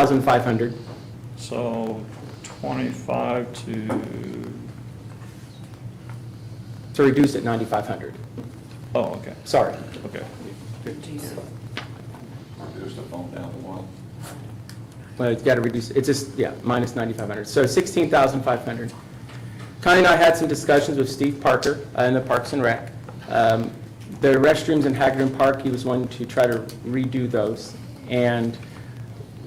9,500. So 25 to, So reduced at 9,500. oh, okay, Sorry. okay. Reduce the phone down to one. Well, it's got to reduce, it's just, yeah, minus 9,500. So 16,500. Connie and I had some discussions with Steve Parker uh, in the Parks and Rec. Um, The restrooms in Hagerton Park, he was wanting to try to redo those. And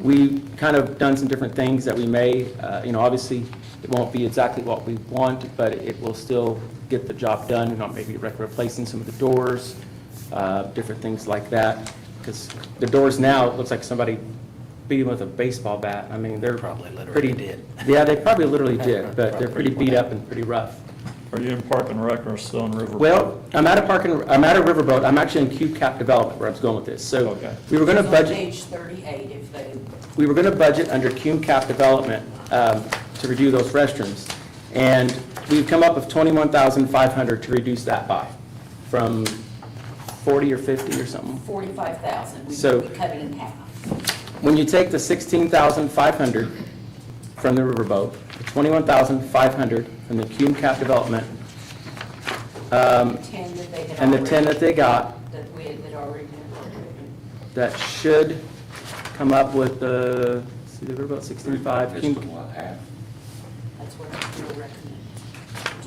we kind of done some different things that we may, uh, you know, obviously, it won't be exactly what we want, but it will still get the job done, you know, maybe rec- replacing some of the doors, uh, different things like that. Because the doors now, it looks like somebody beat them with a baseball bat. I mean, they're Probably literally pretty- did. Yeah, they probably literally did, but they're pretty beat up and pretty rough. Are you in Park and Rec or still in River? Well, I'm at a park, and- I'm at a riverboat, I'm actually in Cube Cap Development where I was going with this. So Okay. we were going to It's on budget, Page 38, if they, we were going to budget under Cube Cap Development um, to redo those restrooms. And we've come up with 21,500 to reduce that by, from 40 or 50 or something. 45,000, we So- we cut it in half. When you take the 16,500 from the riverboat, the 21,500 from the Cube Cap Development, um, 10 that they had. and the 10 that already- they got, That we had had already been appropriated. that should come up with the, see, the riverboat Reduce 16.5. to Cume- one half. That's what we recommending.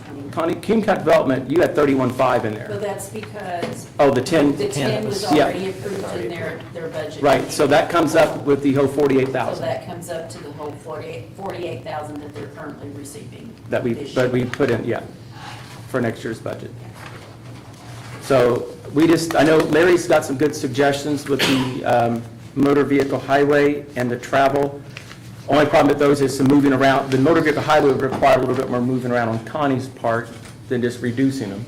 20. Connie, Cume Cap Development, you had 31.5 in Well, there. that's because Oh, the 10, the 10 was yeah. already approved in their, their budget. right, so that comes up with the whole So 48,000 that comes up to the whole 48 48,000 that they're currently receiving. that we, this that we year. put in, yeah, for next year's budget. So we just, I know Larry's got some good suggestions with the um, motor vehicle highway and the travel. Only problem with those is some moving around, the motor vehicle highway would require a little bit more moving around on Connie's part than just reducing them.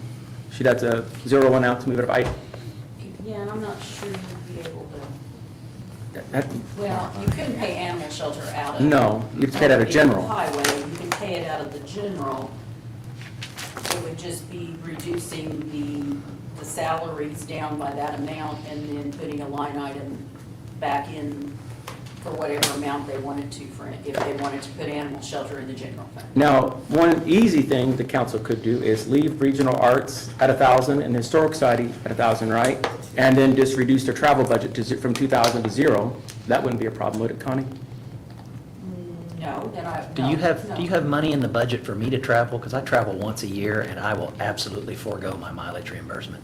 She'd have to zero one out to move it, I, Yeah, and I'm not sure you'd be able to, that, well, you couldn't pay animal shelter out of. no, you'd get out of general. Highway, you can pay it out of the general. It would just be reducing the, the salaries down by that amount and then putting a line item back in for whatever amount they wanted to for, if they wanted to put animal shelter in the general fund. Now, one easy thing the council could do is leave regional arts at a thousand and historic society at a thousand, right? And then just reduce their travel budget to, ze- from two thousand to zero. That wouldn't be a problem, would it, Connie? No, then I, Do no, you have, do you no. have money in the budget for me to travel? Because I travel once a year, and I will absolutely forego my mileage reimbursement.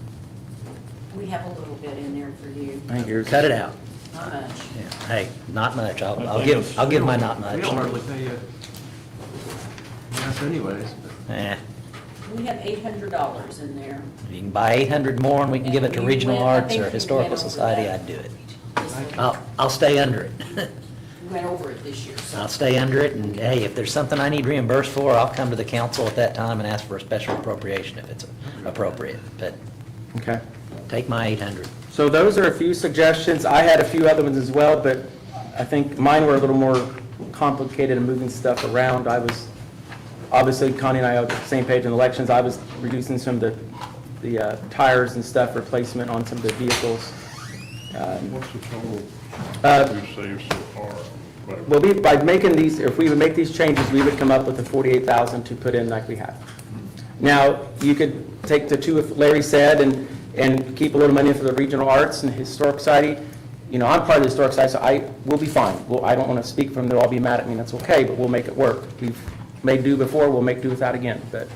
We have a little bit in there for you, I think yours- Cut it out. not much. Yeah. Hey, not much. I'll, I I'll think give, it's- I'll give my not much. We don't hardly pay uh gas anyways, but. Eh, We have eight hundred dollars in there. if you can buy 800 more and we can give it to We Regional went- I Arts think or we Historical went over Society, that. I'd do it. This one. I'll, I'll stay under it. We went over it this year, so. I'll stay under it, and hey, if there's something I need reimbursed for, I'll come to the council at that time and ask for a special appropriation if it's appropriate. But Okay. take my 800. So those are a few suggestions. I had a few other ones as well, but I think mine were a little more complicated and moving stuff around. I was, obviously Connie and I are on the same page in elections. I was reducing some of the, the uh, tires and stuff, replacement on some of the vehicles. Um, What's the total Uh, we've saved so far? Well, we, by making these, if we would make these changes, we would come up with the 48,000 to put in like we have. Now, you could take the two, if Larry said, and, and keep a little money for the regional arts and historic society. You know, I'm part of the historic society, so I, we'll be fine. Well, I don't want to speak for them, they'll all be mad at me, and that's okay, but we'll make it work. We've made do before, we'll make do without again. But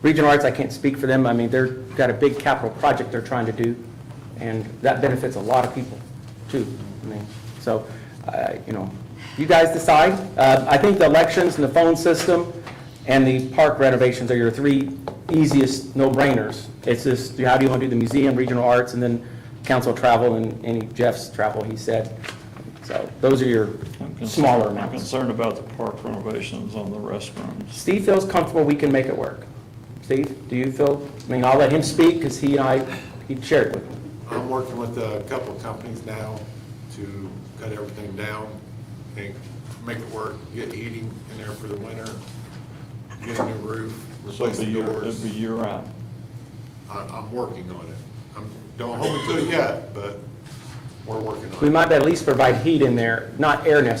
regional arts, I can't speak for them, I mean, they're, got a big capital project they're trying to do, and that benefits a lot of people, too. I mean, so, uh, you know, you guys decide. Uh, I think the elections and the phone system and the park renovations are your three easiest no-brainers. It's just, how do you want to do the museum, regional arts, and then council travel and any Jeff's travel, he said. So those are your I'm concerned- smaller I'm amounts. concerned about the park renovations on the restrooms. Steve feels comfortable we can make it work. Steve, do you feel, I mean, I'll let him speak because he and I, he shared with me. I'm working with a couple of companies now to cut everything down and make it work, get heating in there for the winter, get a new roof, So it'd replace be the year, it'd doors. be year out. I- I'm working on it. I'm, don't hold me to it yet, but We're working on it. We might at least provide heat in there, not air necessarily,